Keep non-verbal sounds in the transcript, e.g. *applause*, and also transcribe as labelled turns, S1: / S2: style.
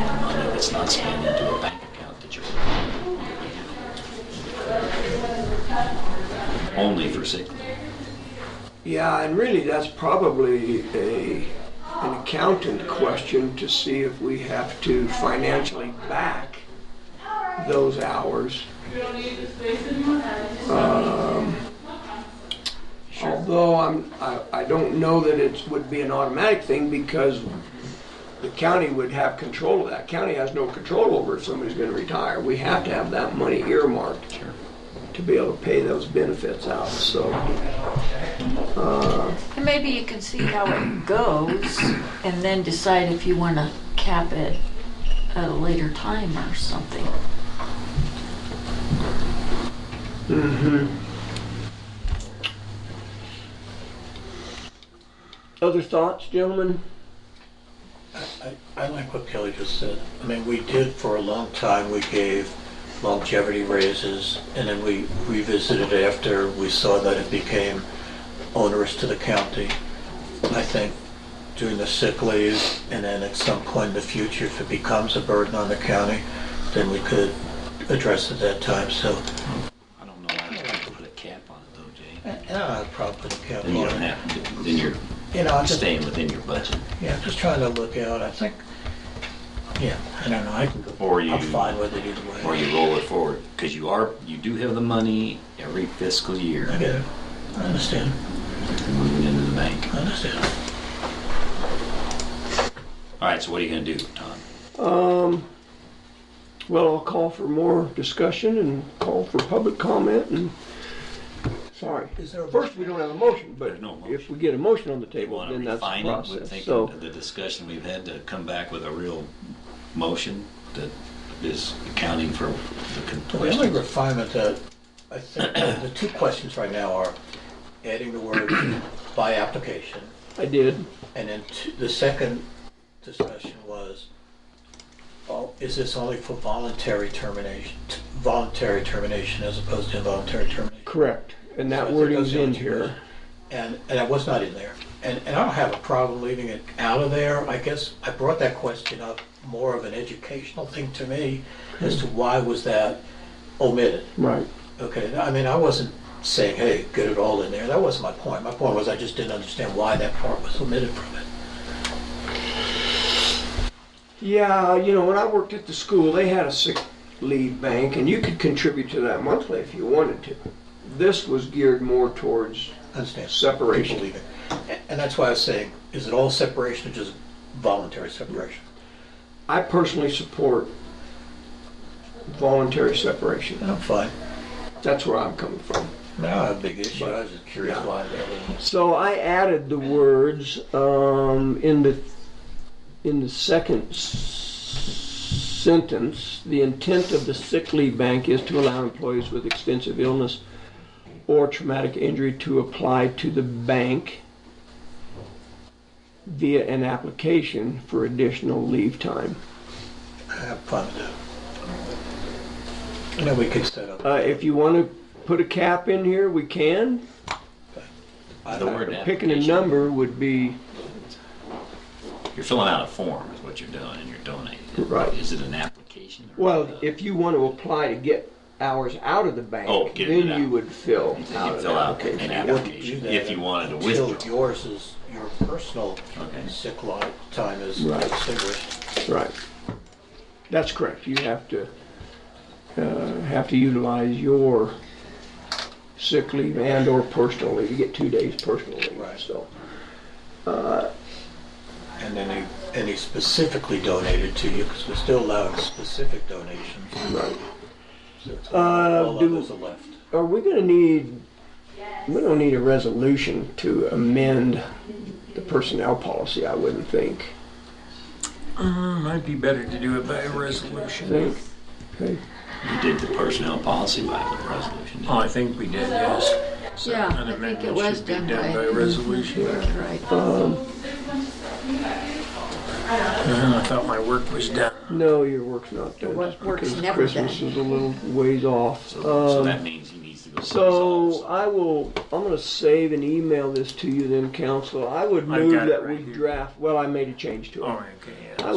S1: that's not spent into a bank account that you're only for sick leave.
S2: Yeah, and really, that's probably a, an accountant question to see if we have to financially back those hours. Um, Although I'm, I, I don't know that it would be an automatic thing because the county would have control of that. County has no control over if somebody's gonna retire. We have to have that money earmarked
S1: Sure.
S2: to be able to pay those benefits out, so.
S3: And maybe you can see how it goes and then decide if you want to cap it at a later time or something.
S2: Other thoughts, gentlemen?
S4: I- I like what Kelly just said. I mean, we did for a long time, we gave longevity raises, and then we revisited after we saw that it became onerous to the county. I think doing the sick leave, and then at some point in the future, if it becomes a burden on the county, then we could address it that time, so.
S1: I don't know why you have to put a cap on it though, Jay.
S4: Yeah, I'd probably count
S1: Then you don't
S4: on it.
S1: have to, then you're
S4: You know, I'm just,
S1: staying within your budget.
S4: yeah, just trying to look out, I think, yeah, I don't know, I can go,
S1: Or you-
S4: I'm fine with it either way.
S1: Or you roll it forward, because you are, you do have the money every fiscal year
S4: I get it. I understand.
S1: moving into the bank.
S4: I understand.
S1: All right, so what are you gonna do, Tom?
S2: Um, well, I'll call for more discussion and call for public comment and, sorry.
S4: Is there a-
S2: First, we don't have a motion, but
S1: There's no motion.
S2: if we get a motion on the
S1: You
S2: table,
S1: want to
S2: then that's the
S1: refine it with
S2: process.
S1: thinking
S2: So,
S1: of the discussion we've had to come back with a real motion that is accounting for the con-
S4: The only
S1: questions.
S4: refinement that, I think, *coughs* the two questions right now are adding the word *coughs* by application,
S2: I did.
S4: and then t- the second discussion was, oh, is this only for voluntary termination, t- voluntary termination as opposed to involuntary termination?
S2: Correct. And
S4: So I
S2: that
S4: think
S2: wording's
S4: those are
S2: in
S4: the two
S2: here.
S4: And, and I was not in there. And, and I don't have a problem leaving it out of there. I guess I brought that question up more of an educational thing to me as to why was that omitted?
S2: Right.
S4: Okay, I mean, I wasn't saying, hey, get it all in there. That wasn't my point. My point was I just didn't understand why that part was omitted from it.
S2: Yeah, you know, when I worked at the school, they had a sick leave bank and you could contribute to that monthly if you wanted to. This was geared more towards,
S4: I understand.
S2: Separation.
S4: People leaving. A- And that's why I was saying, is it all separation or just voluntary separation?
S2: I personally support voluntary separation.
S4: And I'm fine.
S2: That's where I'm coming from.
S4: No, I don't have a big issue. I was just curious
S2: Yeah.
S4: why that was.
S2: So I added the words um, in the in the second s- sentence. The intent of the sick leave bank is to allow employees with extensive illness or traumatic injury to apply to the bank via an application for additional leave time.
S4: Have fun with that. And then we could set up.
S2: Uh, if you want to put a cap in here, we can.
S4: I
S1: The
S4: don't-
S1: word
S2: Picking a
S1: application.
S2: number would be
S1: You're filling out a form is what you're doing and you're donating. it.
S2: Right.
S1: Is it an application? or-
S2: Well, if you want to apply to get hours out of the bank,
S1: Oh, get it
S2: then
S1: out.
S2: you would fill
S1: You
S2: out an
S1: fill out an
S2: application.
S4: You wouldn't do
S1: application
S4: that
S1: if you wanted to
S4: until
S1: withdraw.
S4: Yours is, your personal
S1: Okay.
S4: sick li- time is
S2: Right.
S4: extinguished.
S2: Right. That's correct. You have to, uh, have to utilize your sick leave and or personal leave. You get two days personal leave,
S4: Right.
S2: so.
S4: And then he, and he specifically donated to you, because we're still allowing specific donations.
S2: Right.
S4: So it's
S2: Uh,
S4: All
S2: do-
S4: others are left.
S2: Are we gonna need, we don't need a resolution to amend the personnel policy, I wouldn't think.
S5: Uh, Might be better to do it by a resolution.
S2: Think? Okay.
S1: You did the personnel policy by the resolution. didn't
S5: Oh, I think we did, yes. So
S3: Yeah,
S5: an
S3: I think it
S5: amendment
S3: was
S5: should be
S3: done by.
S5: resolution.
S3: Right.
S2: um,
S5: Uh, I thought my work was done.
S2: No, your work's not done.
S3: work-
S2: just
S3: work's
S2: because
S3: never
S2: Christmas
S3: done.
S2: is a little ways off.
S1: you? So, so
S2: Um,
S1: that means he needs to go. resolve
S2: So
S1: something.
S2: I will, I'm gonna save and email this to you then, council. I would
S5: I've
S2: move
S5: got it
S2: that we
S5: right here.
S2: draft, well, I made a change to it.
S5: All right, Oh, okay, yeah.
S2: I